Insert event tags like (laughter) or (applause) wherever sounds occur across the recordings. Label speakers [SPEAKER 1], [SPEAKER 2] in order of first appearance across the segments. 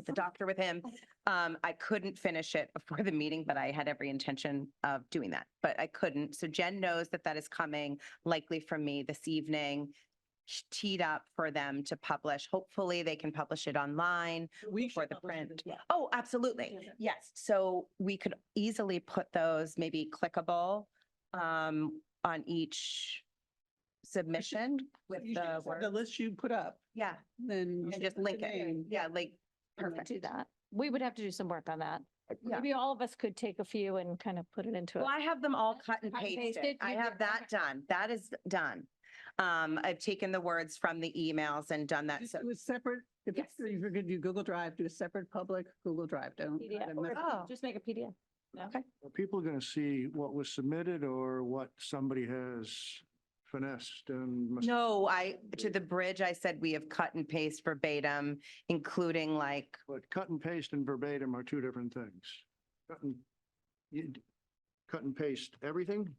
[SPEAKER 1] at the doctor with him. Um, I couldn't finish it before the meeting, but I had every intention of doing that, but I couldn't. So Jen knows that that is coming likely from me this evening, sh- teed up for them to publish. Hopefully they can publish it online.
[SPEAKER 2] We
[SPEAKER 1] for
[SPEAKER 2] should
[SPEAKER 1] the
[SPEAKER 2] publish it
[SPEAKER 1] print.
[SPEAKER 2] as well.
[SPEAKER 1] Oh, absolutely.
[SPEAKER 2] Yeah.
[SPEAKER 1] Yes. So we could easily put those maybe clickable um, on each submission with
[SPEAKER 2] You should
[SPEAKER 1] the
[SPEAKER 2] have
[SPEAKER 1] word.
[SPEAKER 2] The list you put up,
[SPEAKER 1] Yeah,
[SPEAKER 2] then. you
[SPEAKER 1] and
[SPEAKER 2] should
[SPEAKER 1] just
[SPEAKER 2] put the
[SPEAKER 1] link it.
[SPEAKER 2] name.
[SPEAKER 1] Yeah, like,
[SPEAKER 3] and
[SPEAKER 1] perfect.
[SPEAKER 3] Do that. We would have to do some work on that.
[SPEAKER 1] Yeah.
[SPEAKER 3] Maybe all of us could take a few and kind of put it into it.
[SPEAKER 1] Well, I have them all cut and
[SPEAKER 3] Cut and
[SPEAKER 1] pasted.
[SPEAKER 3] pasted,
[SPEAKER 1] I
[SPEAKER 3] you
[SPEAKER 1] have
[SPEAKER 3] did,
[SPEAKER 1] that
[SPEAKER 3] okay.
[SPEAKER 1] done. That is done. Um, I've taken the words from the emails and done that.
[SPEAKER 2] Just
[SPEAKER 1] So,
[SPEAKER 2] Do a separate, if
[SPEAKER 1] Yes.
[SPEAKER 2] if you're gonna do Google Drive, do a separate public Google Drive. Don't. try
[SPEAKER 3] PDF,
[SPEAKER 2] to
[SPEAKER 3] or
[SPEAKER 2] mess-
[SPEAKER 1] Oh.
[SPEAKER 3] Just make a PDF.
[SPEAKER 4] Are people going to see what was submitted or what somebody has finessed and? mis-
[SPEAKER 1] no, I, to the bridge, I said we have cut and paste verbatim, including like,
[SPEAKER 4] But cut and paste and verbatim are two different things. Cut and, you, d- cut and paste everything?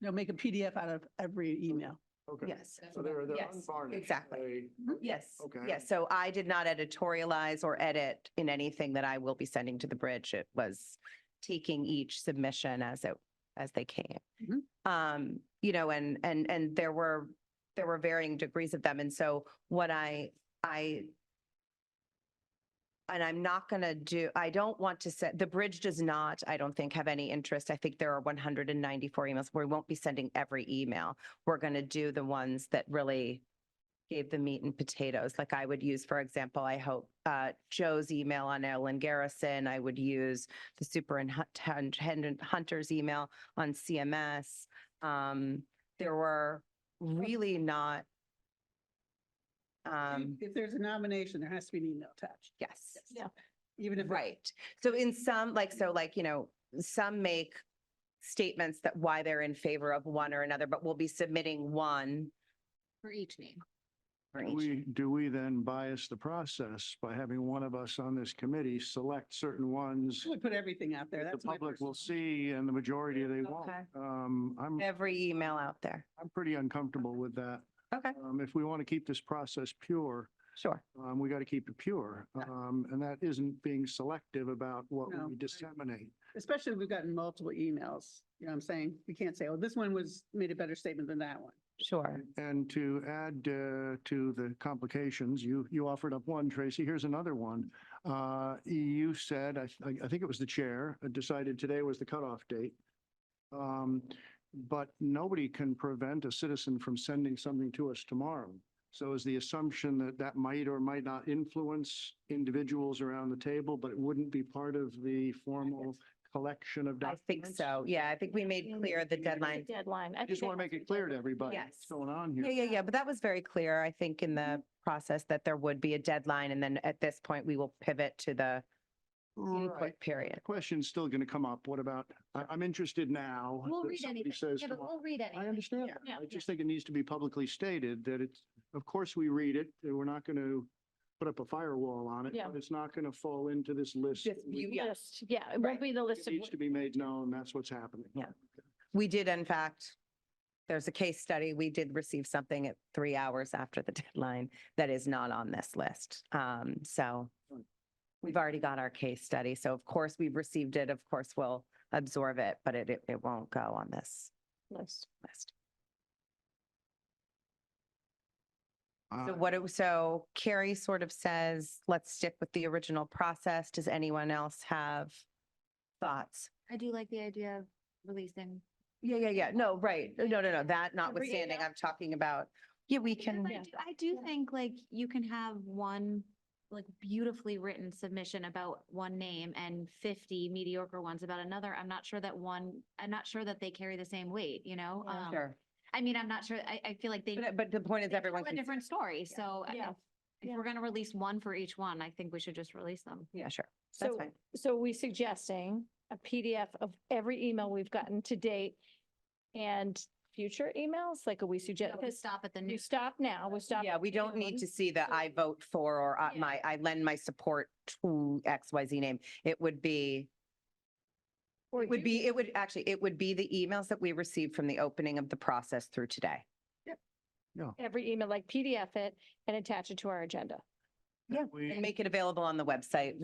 [SPEAKER 2] No, make a PDF out of every email.
[SPEAKER 4] Okay.
[SPEAKER 1] yes.
[SPEAKER 4] So they're, they're
[SPEAKER 1] Yes,
[SPEAKER 4] unvarnished.
[SPEAKER 1] exactly.
[SPEAKER 4] They-
[SPEAKER 1] Yes.
[SPEAKER 4] Okay.
[SPEAKER 1] Yes. So I did not editorialize or edit in anything that I will be sending to the bridge. It was taking each submission as it, as they came.
[SPEAKER 2] Mhm.
[SPEAKER 1] Um, you know, and, and, and there were, there were varying degrees of them. And so what I, I, and I'm not going to do, I don't want to set, the bridge does not, I don't think, have any interest. I think there are 194 emails. We won't be sending every email. We're going to do the ones that really gave the meat and potatoes. Like I would use, for example, I hope uh, Joe's email on Ellen Garrison. I would use the superintendent Hunter's email on CMS. Um, There were really not. um,
[SPEAKER 2] If there's a nomination, there has to be an email attached,
[SPEAKER 1] Yes.
[SPEAKER 3] Yeah.
[SPEAKER 2] even if. it's
[SPEAKER 1] Right. So in some, like, so like, you know, some make statements that why they're in favor of one or another, but we'll be submitting one.
[SPEAKER 3] For each name.
[SPEAKER 1] for
[SPEAKER 4] Do
[SPEAKER 1] each.
[SPEAKER 4] We, do we then bias the process by having one of us on this committee select certain ones?
[SPEAKER 2] I would put everything out there.
[SPEAKER 4] that The
[SPEAKER 2] That's my
[SPEAKER 4] public will
[SPEAKER 2] personal-
[SPEAKER 4] see and the majority they won't.
[SPEAKER 1] Okay.
[SPEAKER 4] Um, I'm.
[SPEAKER 1] Every email out there.
[SPEAKER 4] I'm pretty uncomfortable with that.
[SPEAKER 1] Okay.
[SPEAKER 4] Um, if we want to keep this process pure,
[SPEAKER 1] Sure.
[SPEAKER 4] um, we got to keep it pure. Um, and that isn't being selective about what
[SPEAKER 2] No.
[SPEAKER 4] we disseminate.
[SPEAKER 2] Especially if we've gotten multiple emails, you know what I'm saying? We can't say, oh, this one was, made a better statement than that one.
[SPEAKER 1] Sure.
[SPEAKER 4] And to add, uh, to the complications, you, you offered up one, Tracy, here's another one. Uh, you said, I, I- I think it was the chair, uh, decided today was the cutoff date. Um, but nobody can prevent a citizen from sending something to us tomorrow. So is the assumption that that might or might not influence individuals around the table, but it wouldn't be part of the formal collection of
[SPEAKER 1] I
[SPEAKER 4] documents?
[SPEAKER 1] think so. Oh, Yeah, I think we made clear the deadline.
[SPEAKER 3] Deadline.
[SPEAKER 4] I just want to make it clear to everybody
[SPEAKER 1] Yes.
[SPEAKER 4] what's going on
[SPEAKER 1] Yeah, Mm-hmm.
[SPEAKER 4] here.
[SPEAKER 1] yeah, yeah. But that was very clear, I think, in the process that there would be a deadline. And then at this point, we will pivot to the
[SPEAKER 4] Right.
[SPEAKER 1] input period.
[SPEAKER 4] question's still going to come up. What about, I, I'm interested now.
[SPEAKER 5] We'll
[SPEAKER 4] that
[SPEAKER 5] read
[SPEAKER 4] somebody
[SPEAKER 5] anything.
[SPEAKER 4] says
[SPEAKER 5] Yeah, but
[SPEAKER 4] tomorrow-
[SPEAKER 5] we'll read
[SPEAKER 4] I
[SPEAKER 5] anything.
[SPEAKER 4] understand that.
[SPEAKER 3] Yeah,
[SPEAKER 4] I
[SPEAKER 3] yeah.
[SPEAKER 4] just think it needs to be publicly stated that it's, of course, we read it. and We're not going to put up a firewall on it,
[SPEAKER 3] Yeah.
[SPEAKER 4] but it's not going to fall into this list.
[SPEAKER 1] Just
[SPEAKER 4] We-
[SPEAKER 1] you-
[SPEAKER 3] List, yeah, it
[SPEAKER 1] Right.
[SPEAKER 3] won't be the
[SPEAKER 4] It
[SPEAKER 3] list of.
[SPEAKER 4] needs to be made known. That's what's happening.
[SPEAKER 1] Yeah. We did, in fact, there's a case study. We did receive something at three hours after the (laughs) deadline that is not on this list. Um, so we've already got our case study. So of course, we've received it. Of course, we'll absorb it, but it, it- it won't go on this
[SPEAKER 3] list.
[SPEAKER 1] list. So
[SPEAKER 4] Uh,
[SPEAKER 1] what, do- so Carrie sort of says, let's stick with the original process. Does anyone else have thoughts?
[SPEAKER 5] I do like the idea of releasing.
[SPEAKER 1] Yeah, yeah, yeah. No, right. No, no, no, that notwithstanding,
[SPEAKER 5] notwithstanding,
[SPEAKER 1] I'm talking about, yeah, we can.
[SPEAKER 5] I do- I do think like you can have one like beautifully written submission about one name and fifty mediocre ones about another. I'm not sure that one, I'm not sure that they carry the same weight, you know? Um,
[SPEAKER 1] Sure.
[SPEAKER 5] I mean, I'm not sure. I, I feel like they.
[SPEAKER 1] But, but the point is
[SPEAKER 5] they
[SPEAKER 1] everyone
[SPEAKER 5] tell
[SPEAKER 1] can,
[SPEAKER 5] A different story. So I-
[SPEAKER 3] Yeah.
[SPEAKER 5] if
[SPEAKER 3] Yeah.
[SPEAKER 5] if we're going to release one for each one, I think we should just release them.
[SPEAKER 1] yeah, sure. That's
[SPEAKER 3] So,
[SPEAKER 1] fine.
[SPEAKER 3] so we suggesting a PDF of every email we've gotten to date and future emails, like are we suggest,
[SPEAKER 5] Don't
[SPEAKER 3] because
[SPEAKER 5] Stop at the
[SPEAKER 3] you
[SPEAKER 5] new.
[SPEAKER 3] stop now, we stop.
[SPEAKER 1] Yeah, we don't need to see the
[SPEAKER 3] So-
[SPEAKER 1] I vote for or uh,
[SPEAKER 3] Yeah.
[SPEAKER 1] my, I lend my support to X, Y, Z name. It would be,
[SPEAKER 3] Or
[SPEAKER 1] it would
[SPEAKER 3] do-
[SPEAKER 1] be, it would actually, it would be the emails that we received from the opening of the process through today.
[SPEAKER 3] Every email, like PDF it and attach it to our agenda.
[SPEAKER 4] that we-
[SPEAKER 1] And make it available on the website.